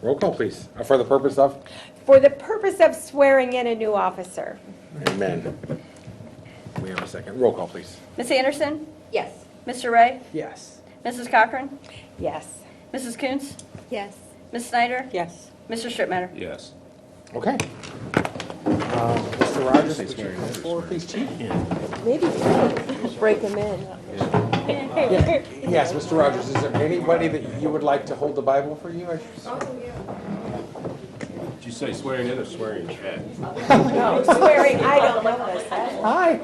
Roll call, please, Uh, for the purpose of? for the purpose of swearing in a new officer. Amen. We have a second. Roll call, please. Ms. Anderson? Yes. Mr. Ray? Yes. Mrs. Cochran? Yes. Mrs. Coons? Yes. Ms. Snyder? Yes. Mr. Strittmatter? Yes. Okay. Uh, Mr. Rogers, would you come forward, please, Chief? Maybe break them in. Yes, Mr. Rogers, is there anybody that you would like to hold the Bible for you? Did you say swearing in or swearing in? Swearing, I don't know this. Hi.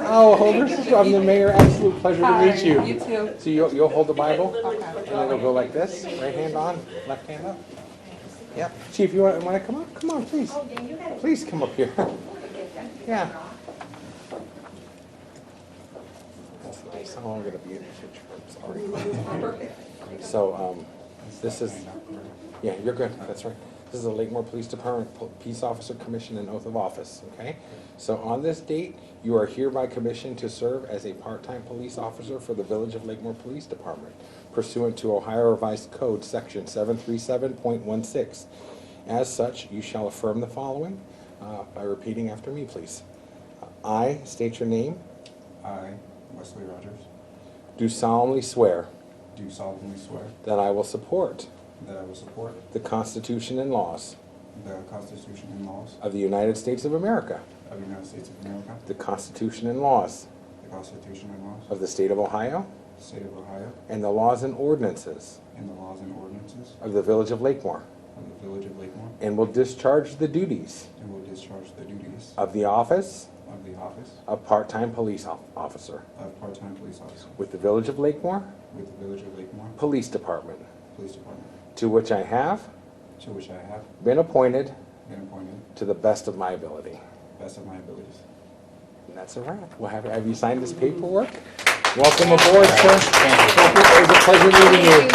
Oh, Holder, I'm the mayor, absolute pleasure to meet you. You too. So you'll, you'll hold the Bible, and then it'll go like this, right hand on, left hand up. Yep, chief, you wanna, wanna come up? Come on, please. Please come up here. Yeah. It's no longer gonna be in the picture, I'm sorry. So, um, this is, yeah, you're good, that's right. This is the Lakemore Police Department Po- Peace Officer Commission and Oath of Office, okay? So on this date, you are hereby commissioned to serve as a part-time police officer for the Village of Lakemore Police Department pursuant to Ohio Revised Code, Section seven three seven point one six. As such, you shall affirm the following uh, by repeating after me, please. I state your name, I, Wesley Rogers, do solemnly swear do solemnly swear that I will support that I will support the Constitution and laws the Constitution and laws of the United States of America, of the United States of America, the Constitution and laws the Constitution and laws of of the State of Ohio, the State of Ohio, and the laws and ordinances and the laws and ordinances of the Village of Lakemore, of the Village of Lakemore, and will discharge the duties and will discharge the duties of the office of the office of part-time police o- officer of part-time police officer with the Village of Lakemore with the Village of Lakemore Police Department, Police Department, to which I have to which I have been appointed been appointed to the best of my ability. best of my abilities. And that's a wrap. Well, have, have you signed this paperwork? Welcome aboard, sir. Thank you. It was a pleasure meeting you.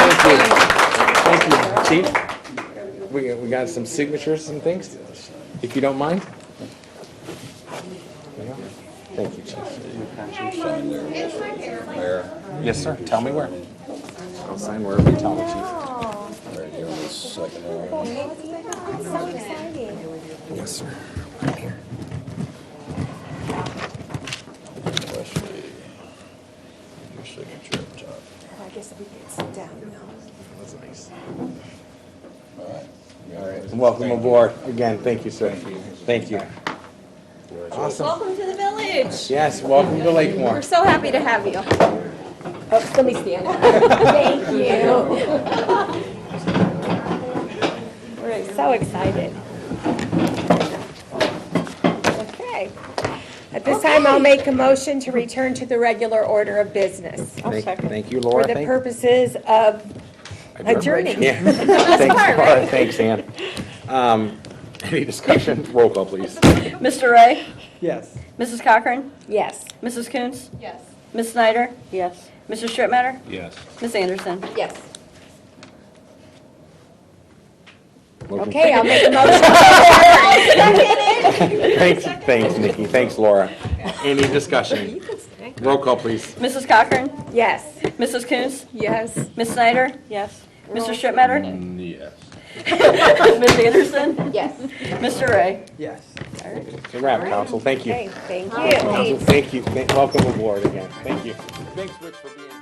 Thank you. Thank you. Chief, we, we got some signatures and things, if you don't mind. There you go. Thank you, Chief. Yes, sir. Tell me where. I'll sign wherever you tell me, Chief. So exciting. Yes, sir. Your signature up top. I guess we can sit down now. That's nice. All right. All right. Welcome aboard. Again, thank you, sir. Thank you. Awesome. Welcome to the village. Yes, welcome to Lakemore. We're so happy to have you. Oh, let me stand up. Thank you. We're so excited. Okay. At this time, I'll make a motion to return to the regular order of business Thank thank you, for Laura. the Thank- purposes of adjourning. Yeah. Thanks, Laura. Thanks, Ann. Um, Any discussion? Roll call, please. Mr. Ray? Yes. Mrs. Cochran? Yes. Mrs. Coons? Yes. Ms. Snyder? Yes. Mr. Strittmatter? Yes. Ms. Anderson? Yes. Motion- Okay, I'll make a motion. Thanks, thanks, Nikki. Thanks, Laura. Any discussion? Roll call, please. Mrs. Cochran? Yes. Mrs. Coons? Yes. Ms. Snyder? Yes. Mr. Strittmatter? Yes. Ms. Anderson? Yes. Mr. Ray? Yes. It's a wrap, council. Thank you. Okay, thank you. Council, Thank you. Thank- Welcome aboard again. Thank you. Thanks, Rich, for being here.